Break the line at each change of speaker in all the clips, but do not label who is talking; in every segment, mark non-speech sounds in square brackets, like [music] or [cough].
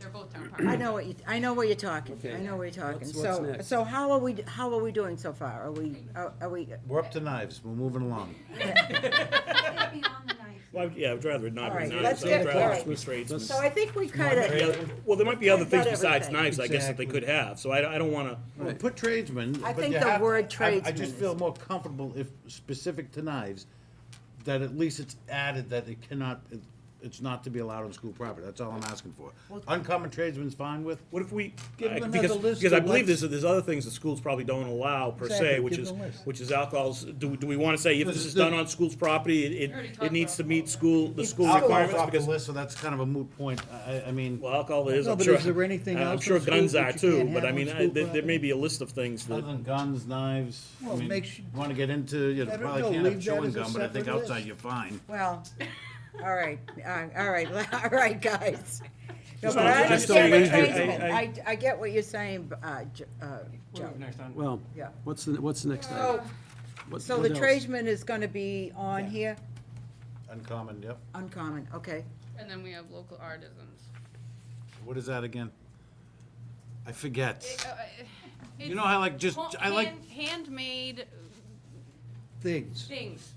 [clears throat]
town
I
park.
know what you, I know what you're talking, I
Okay.
know what you're talking,
What's- what's
so,
next?
so how are we, how are we doing so far, are we, are are we,
We're up to knives, we're moving along.
It'd be on the knife.
Well, I'd- yeah, I'd rather it
All
not be
right,
knives,
let's
I'd
get- all
rather
right.
it be straight.
so I think we kinda,
Well, there might be other
Not
things besides
everything.
knives, I guess, that they could have, so I, I don't wanna,
Well, Put tradesmen.
I
but
think
you
the
have-
word
I- I
tradesman
just
is-
feel more comfortable if specific to knives, that at least it's added that it cannot, it- it's not to be allowed on school property. That's all I'm asking for. Uncommon tradesmen's fine with?
what if we?
Give
I-
them
because-
another list
Because I
of
believe
what's-
there's, there's other things that schools probably don't allow per se,
Exactly,
which
give
is,
them a list.
which is alcohols, do, do we wanna say if
This
this
is
is
the-
done on school's property, it,
already
it,
talked
it needs to
about
meet school, the school
Alcohol's
requirements?
off the
Because,
list, so that's kind of a moot point. I, I- I mean,
well, alcohol is,
No,
I'm
but
sure. uh,
is there anything
I'm
else in
sure
school
guns
that
are
you
too,
can't
but
have
I
on
mean, I-
school
there, there may
property?
be a list of things
other
that,
than guns, knives, I
Well,
mean,
make su-
wanna get into, you
Let it
probably
go,
can't have
leave that
chewing
as a
gum, but I think
separate
outside
list.
you're fine.
well, all right, uh, all right, [laughs] all right, guys. No,
Just
but
don't-
I
just don't
understand the
leave it. I-
tradesman,
I-
I, I get what you're saying, uh, J- uh, Joe,
Well,
yeah.
what's the, what's the next item?
So,
What-
Oh, so
what
the
else?
tradesman is gonna be on here,
Uncommon, yep.
uncommon, okay,
And then we have local artisans.
What is that again? I forget.
It- uh,
You know, I like just,
it's
I like,
hand- Handmade
Things.
things.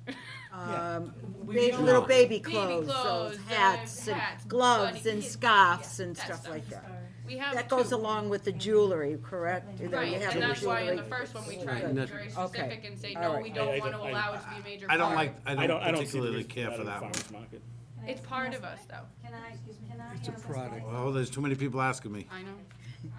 Yeah.
um,
We
ba-
should
little
know.
baby
Baby
clothes,
clothes,
those
uh,
hats and
hats,
gloves
bunny-
and
yeah,
scarves and
that
stuff
stuff.
like that.
We have
That goes
two.
along with the jewelry, correct? You know,
Right,
you have
and
the
that's why in the
jewelry.
first one, we tried to
And
be
that-
very
okay.
specific and say,
All
no,
right.
we
I- I
don't want to
don't- I-
allow it to be a major
I don't
part.
like,
I
I
don't,
don't
I don't see
particularly
the,
care for that one.
farmer's market.
It's part of us, though.
Can I, excuse me, can I
It's a
ask a
product.
slight-
Oh, there's too many people asking me.
I know.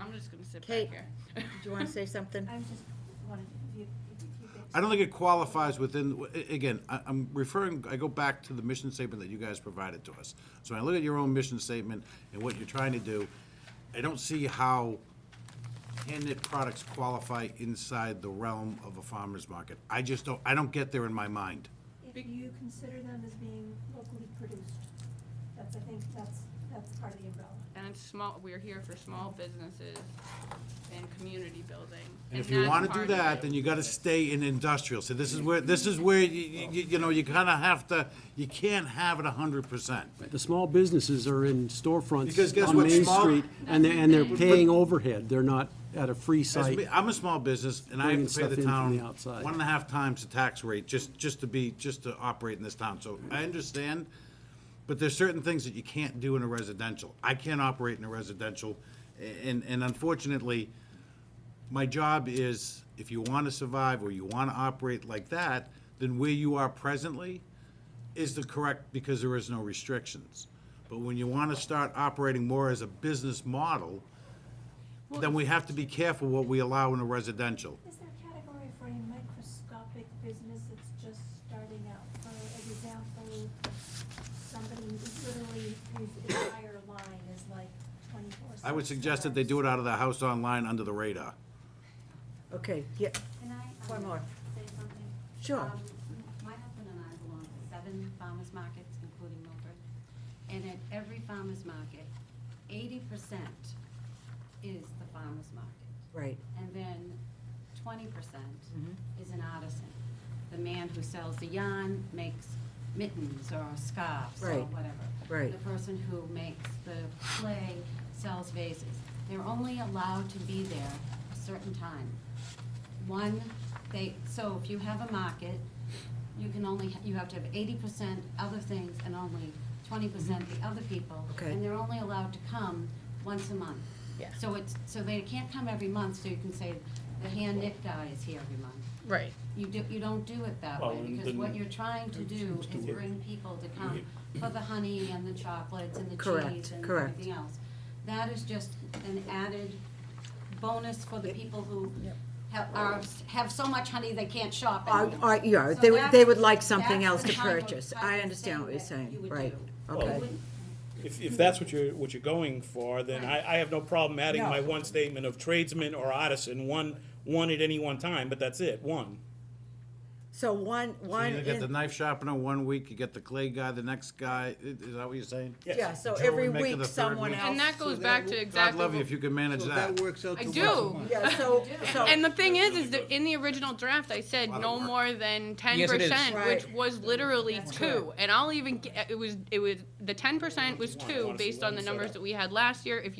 I'm just gonna sit
Kate.
back here.
Do you wanna say something?
I'm just wondering if you, if you could.
I don't think it qualifies within, a- again, I- I'm referring, I go back to the mission statement that you guys provided to us. So when I look at your own mission statement and what you're trying to do, I don't see how hand-knit products qualify inside the realm of a farmer's market. I just don't, I don't get there in my mind.
If you consider them as being locally produced, that's, I think, that's, that's part of the umbrella.
And it's small, we're here for small businesses and community building.
And if you
that's
want to
part
do
of
that,
it.
then you gotta stay in industrial. So this is where, this is where, you, you, you know, you kinda have to, you can't have it a hundred percent.
The small businesses are in
Because guess
storefronts on
what,
Main
small-
Street, and they're, and they're paying overhead, they're not at a free
As
site.
me- I'm a small business, and I
bringing
have to pay
stuff
the
in from
town
the outside.
one and a half times the tax rate just, just to be, just to operate in this town. So I understand, but there's certain things that you can't do in a residential. I can't operate in a residential, a- and, and unfortunately, my job is, if you want to survive or you want to operate like that, then where you are presently is the correct, because there is no restrictions. But when you want to start operating more as a business model, then we have to be careful what we allow in a residential.
Is there a category for a microscopic business that's just starting out? For example, somebody who's literally, whose entire line is like twenty-four.
I would suggest that they do it out of their house online under the radar.
Okay, yeah,
Can I? um,
One more.
Say something?
Sure.
Um, My husband and I belong to seven farmers markets, including Milford. And at every farmers market, eighty percent is the farmers market.
right.
And then twenty percent
Mm-hmm.
is an artisan, the man who sells the yarn, makes mittens or scarves or
Right.
whatever.
Right.
The person who makes the clay, sells vases. They're only allowed to be there a certain time. One, they, so if you have a market, you can only, you have to have eighty percent other things and only twenty percent the other people.
Okay.
And they're only allowed to come once a month.
Yeah.
So it's, so they can't come every month, so you can say, the hand knit guy is here every month.
Right.
You do, you don't do it that
Well,
way,
and
because what
then-
you're trying to do is bring people to come for the honey and the chocolates and the
Correct,
cheese and
correct.
everything else. That is just an added bonus for the people who have, are, have so much honey they can't shop
Or,
anymore.
or, yeah,
So
they, would- they would
that's-
like something
that's
else
the
to
type of-
purchase.
type
I
of
understand what
thing
you're
that
saying,
you would
right,
do. You
okay.
wouldn't
If, if that's what you're, what you're going for, then I, I have no problem adding
No.
my one statement of tradesman or artisan, one, one at any one time, but that's it, one.
So one,
So
one,
you get the
in-
knife sharpener one week, you get the clay guy the next guy, I- is that what you're saying?
Yes.
yeah, so
Joe
every
would make it
week
the third
someone
week.
else.
And that goes
that
back
w-
to
God
God
exactly.
love you
what-
if you could manage
So
that.
that works out
I
to
do.
once a month.
Yeah, so, so,
And the thing is, is that in the original draft, I said
Lot of
no
work.
more than ten
Yes, it is.
percent, which
Right.
was literally two. And I'll even, g- it was, it was, the ten percent was two, based on the numbers that we had last year. If